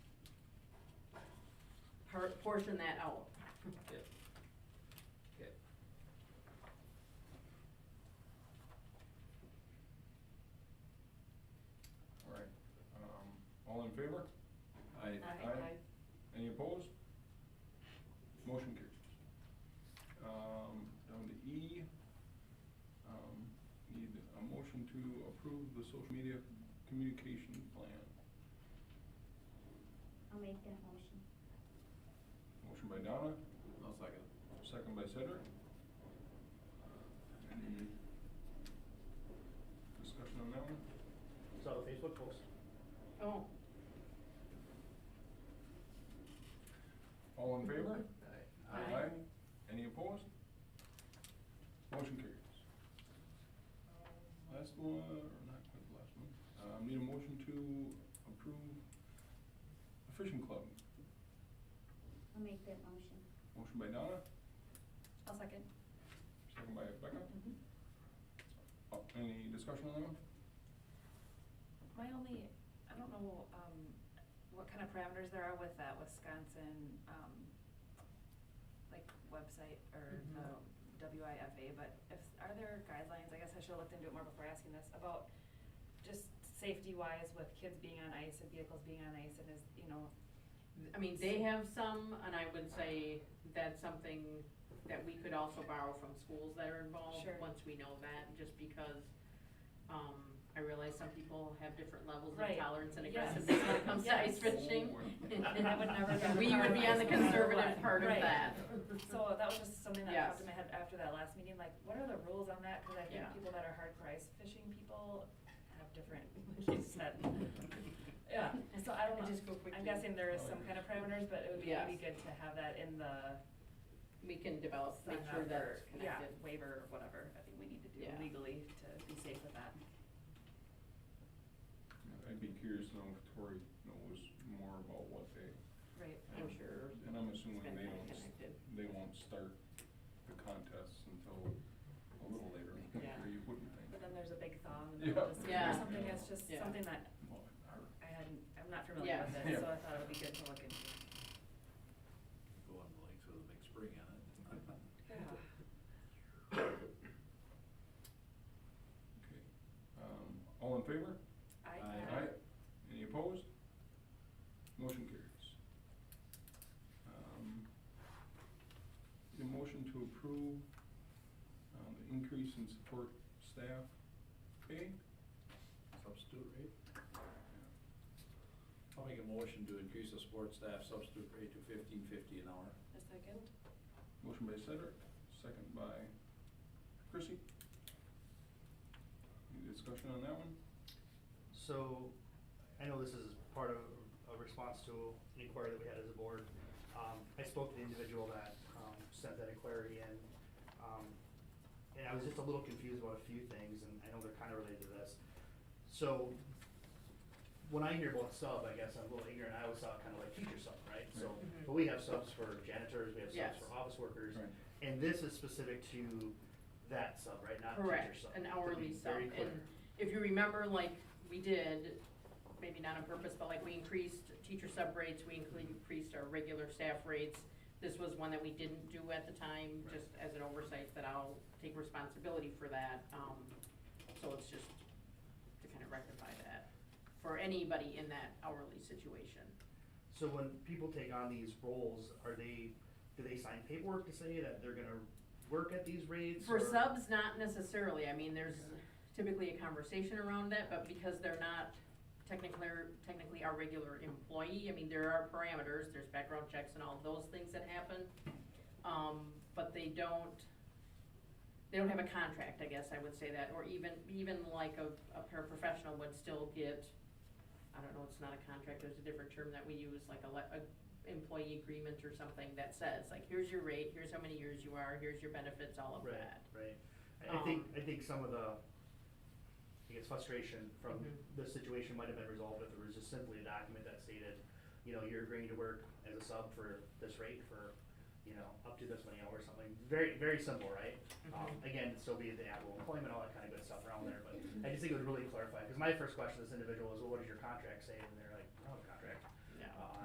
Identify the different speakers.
Speaker 1: portion that out.
Speaker 2: Yep. Okay.
Speaker 3: All right, um, all in favor?
Speaker 2: I,
Speaker 1: Aye.
Speaker 3: Any opposed? Motion carries. Um, down to E, um, need a motion to approve the social media communication plan.
Speaker 4: I'll make that motion.
Speaker 3: Motion by Donna,
Speaker 2: I'll second.
Speaker 3: second by Cedric. Any discussion on that one?
Speaker 5: So the Facebook post.
Speaker 1: Oh,
Speaker 3: All in favor?
Speaker 1: Aye. Aye.
Speaker 3: Any opposed? Motion carries. Last one, or not quite the last one, um, need a motion to approve a fishing club.
Speaker 4: I'll make that motion.
Speaker 3: Motion by Donna,
Speaker 6: I'll second.
Speaker 3: second by Becca. Uh, Any discussion on that one?
Speaker 6: My only, I don't know, um, what kind of parameters there are with that Wisconsin, um, like website or
Speaker 1: Mhm.
Speaker 6: the WIFA, but if, are there guidelines, I guess I should have looked into it more before asking this, about just safety wise with kids being on ice and vehicles being on ice and is, you know,
Speaker 1: I mean, they have some, and I would say that's something that we could also borrow from schools that are involved.
Speaker 6: Sure.
Speaker 1: Once we know that, just because, um, I realize some people have different levels of
Speaker 6: Right.
Speaker 1: tolerance and
Speaker 6: Yes.
Speaker 1: aggressiveness when it comes to ice
Speaker 6: Yes.
Speaker 2: Oh,
Speaker 1: fishing.
Speaker 3: And
Speaker 6: I would never go to
Speaker 1: We would be on the
Speaker 6: Colorado, no matter
Speaker 1: conservative
Speaker 6: what.
Speaker 1: part of
Speaker 6: Right.
Speaker 1: that.
Speaker 6: So that was just something that
Speaker 1: Yes.
Speaker 6: popped in my head after that last meeting, like, what are the rules on that? Cause I
Speaker 1: Yeah.
Speaker 6: think people that are hardcore ice fishing people have different, like you said. Yeah, so I don't
Speaker 1: And just go
Speaker 6: know,
Speaker 1: quickly. Oh,
Speaker 6: I'm guessing there is some kind of parameters, but it would be, it'd be
Speaker 1: Yes.
Speaker 6: good to have that in the.
Speaker 1: We can develop, make
Speaker 6: sign
Speaker 1: sure
Speaker 6: up
Speaker 1: that's
Speaker 6: or-
Speaker 1: connected.
Speaker 6: yeah, Waiver or whatever, I think we need to do
Speaker 1: Yeah.
Speaker 6: legally to be safe with that.
Speaker 3: I'd be curious to know if Tori knows more about what they.
Speaker 6: Right.
Speaker 1: I'm sure
Speaker 3: And I'm
Speaker 1: it's
Speaker 3: assuming
Speaker 1: been
Speaker 3: they
Speaker 1: kinda
Speaker 3: don't, s-
Speaker 1: connected.
Speaker 3: they won't start the contests until a little later, in the
Speaker 6: Yeah.
Speaker 3: year, you wouldn't think.
Speaker 6: But then there's a big thaw in the middle of the
Speaker 1: Yeah.
Speaker 6: summer or something, it's just
Speaker 1: Yeah.
Speaker 6: something that
Speaker 3: Well, I-
Speaker 6: I hadn't, I'm not familiar with
Speaker 1: Yeah.
Speaker 6: it, so
Speaker 3: Yeah.
Speaker 6: I thought it would be good to look into.
Speaker 7: Go on the lakes with a big spring on it.
Speaker 3: Okay, um, all in favor?
Speaker 6: I.
Speaker 7: Aye.
Speaker 3: Any opposed? Motion carries. Um, The motion to approve, um, the increase in support staff pay?
Speaker 7: Substitute rate? I'll make a motion to increase the sports staff substitute rate to fifteen fifty an hour.
Speaker 6: A second?
Speaker 3: Motion by Cedric, second by Chrissy. Any discussion on that one?
Speaker 5: So, I know this is part of a response to an inquiry that we had as a board. Um, I spoke to the individual that, um, sent that inquiry in. Um, and I was just a little confused about a few things, and I know they're kind of related to this. So, when I hear about sub, I guess I'm a little ignorant, I always saw it kind of like teacher sub, right? So,
Speaker 1: Right.
Speaker 5: but we have subs for janitors, we have subs
Speaker 1: Mm-hmm. Yes.
Speaker 5: for office workers.
Speaker 3: Right.
Speaker 5: And this is specific to that sub, right, not teacher
Speaker 1: Correct,
Speaker 5: sub?
Speaker 1: an
Speaker 5: to be
Speaker 1: hourly sub.
Speaker 5: very clear.
Speaker 1: And if you remember, like, we did, maybe not on purpose, but like, we increased teacher sub rates, we increased our regular staff rates. This was one that we didn't do at the time,
Speaker 5: Right.
Speaker 1: just as an oversight, that I'll take responsibility for that. Um, So it's just to kind of rectify that for anybody in that hourly situation.
Speaker 5: So when people take on these roles, are they, do they sign paperwork to say that they're gonna work at these rates?
Speaker 1: For
Speaker 5: or-
Speaker 1: subs, not necessarily, I mean, there's typically a conversation around that, but because they're not technically, technically our regular employee, I mean, there are parameters, there's background checks and all those things that happen. Um, but they don't, they don't have a contract, I guess I would say that, or even, even like a, a paraprofessional would still get, I don't know, it's not a contract, there's a different term that we use, like a, le- a employee agreement or something that says, like, here's your rate, here's how many years you are, here's your benefits, all of
Speaker 5: Right,
Speaker 1: that.
Speaker 5: right. I, I think,
Speaker 1: Um,
Speaker 5: I think some of the, I guess frustration from
Speaker 1: Mhm.
Speaker 5: the situation might have been resolved if there was just simply a document that stated, you know, you're agreeing to work as a sub for this rate for, you know, up to this many hours, something, very, very simple, right?
Speaker 1: Mm-hmm.
Speaker 5: Um, again, still be the actual employment, all that kind of good stuff around there, but I just think it would really clarify, because my first question to this individual was, well, what does your contract Uh, say? And they're like, oh, the